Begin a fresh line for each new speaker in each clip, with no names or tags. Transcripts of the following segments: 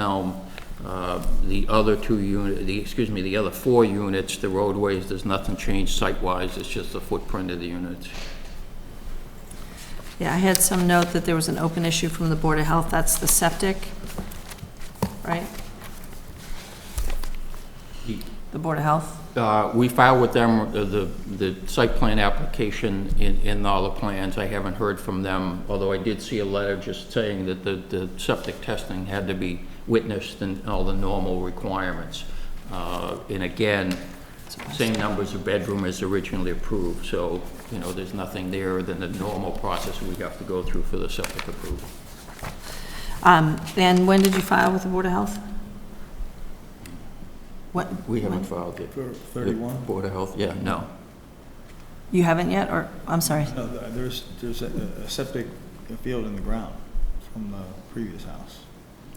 Elm, uh, the other two unit, the, excuse me, the other four units, the roadways, there's nothing changed site-wise, it's just the footprint of the units.
Yeah, I had some note that there was an open issue from the Board of Health, that's the septic, right? The Board of Health?
Uh, We filed with them the, the the site plan application in, in all the plans. I haven't heard from them, although I did see a letter just saying that the, the septic testing had to be witnessed and all the normal requirements. Uh, And again, same numbers of bedroom as originally approved, so, you know, there's nothing there than the normal process we have to go through for the septic approval.
Um, And when did you file with the Board of Health? What?
We haven't
when?
filed it.
For 31?
Board of Health, yeah, no.
You haven't yet, or, I'm sorry,
No, th- there's, there's a a septic field in the ground from the previous house.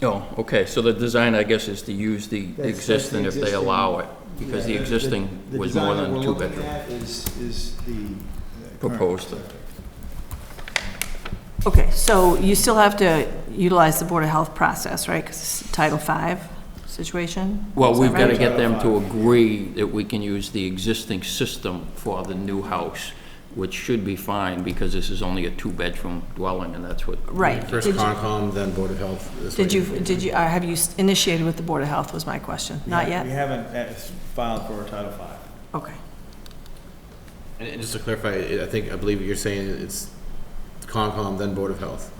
Oh, okay, so the design, I guess, is to use the
That's- that's the
existing if they
existing.
allow it, because the
Yeah,
existing
the
was
design
more
that
than
we're
two
looking
bedroom.
at Is, is the. uh, current
Proposed.
septic.
okay, so you still have to utilize the Board of Health process, right, because it's Title V situation?
Well,
Is
we've
that
got to
right?
get them to agree that we can use the existing system for the new house, which should be fine, because this is only a two-bedroom dwelling, and that's what.
Right.
First
Did you-
Concom, then Board of Health. this
Did
way.
you, did you, uh, have you initiated with the Board of Health, was my question,
We
not
ha- We
yet?
haven't uh, filed for Title V.
Okay.
And and just to clarify, I I think, I believe what you're saying, it's Concom, then Board of Health.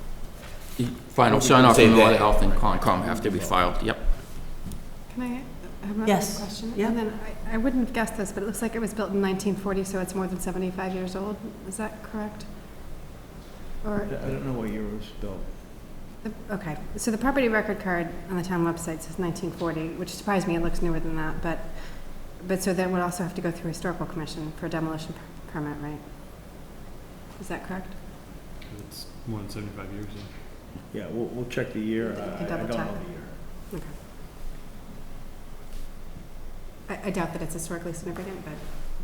Final sign-off
Say
from Board of
that.
Health and Concom have to be filed, yep.
Can I have another
Yes.
question?
Yeah.
And then, I I wouldn't have guessed this, but it looks like it was built in 1940, so it's more than 75 years old. Is that correct?
I
Or,
don't know what year it was built.
okay, so the property record card on the town website says 1940, which surprised me, it looks newer than that, but, but so that would also have to go through Historical Commission for demolition per- permit, right? Is that correct?
It's more than 75 years ago.
Yeah, we'll, we'll check the year. I
can
I don't
double
know the
check.
year.
Okay. I I doubt that it's historically significant, but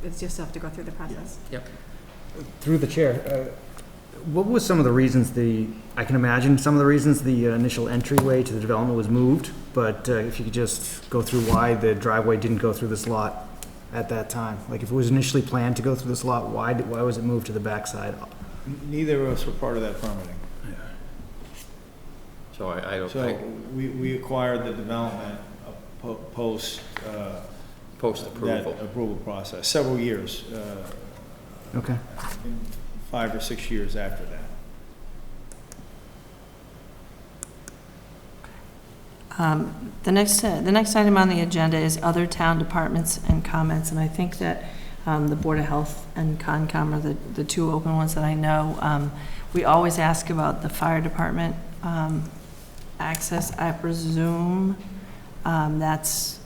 it's just have to go through the process.
Through the chair, uh, what was some of the reasons the, I can imagine some of the reasons the uh, initial entryway to the development was moved, but uh, if you could just go through why the driveway didn't go through this lot at that time? Like, if it was initially planned to go through this lot, why, did- why was it moved to the backside?
N- Neither of us were part of that permitting.
So I, I don't,
So
I
we, we acquired the development uh, po- post, uh, that
post-approval.
approval process, several years, uh,
Okay.
in five or six years after that.
Um, The next, uh, the next item on the agenda is other town departments and comments, and I think that um, the Board of Health and Concom are the, the two open ones that I know. Um, We always ask about the fire department um, access, I presume um, that's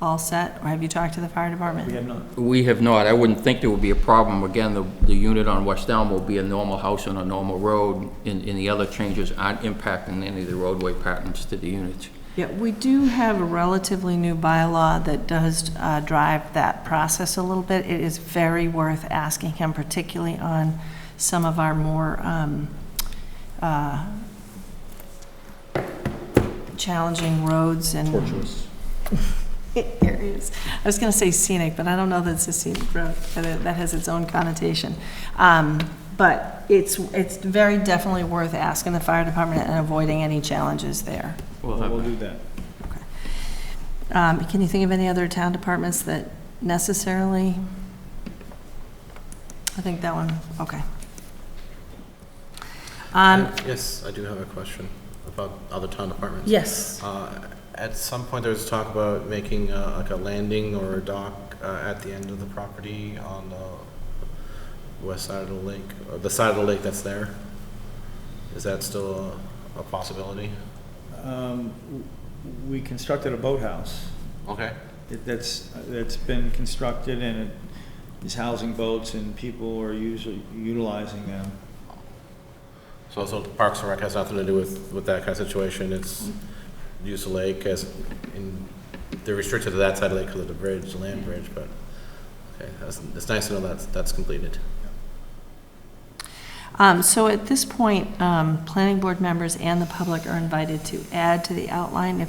all set, or have you talked to the fire department?
We have not,
We have not, I wouldn't think there would be a problem. Again, the, the unit on West Elm will be a normal house on a normal road, and, and the other changes aren't impacting any of the roadway patterns to the units.
Yeah, we do have a relatively new bylaw that does uh, drive that process a little bit. It is very worth asking him, particularly on some of our more um, uh, challenging roads and. Tortuous. Areas. I was going to say scenic, but I don't know that it's a scenic road, that it- that has its own connotation. Um, But it's, it's very definitely worth asking the fire department and avoiding any challenges there.
We'll have
we'll do that.
Um, Can you think of any other town departments that necessarily? I think that one, okay. Um,
Yes, I do have a question about other town departments.
Yes.
Uh, At some point, there was talk about making uh, like a landing or a dock uh, at the end of the property on the west side of the lake, or the side of the lake that's there. Is that still a a possibility?
Um, w- We constructed a boathouse.
Okay.
It- That's, that's been constructed and it is housing boats and people are usually utilizing them.
So also Parks and Rec has nothing to do with, with that kind of situation, it's use of lake as, in, they're restricted to that side of the lake because of the bridge, the land bridge, but, okay, that's, it's nice to know that's, that's completed.
Um, Um, So at this point, um, planning board members and the public are invited to add to the outline if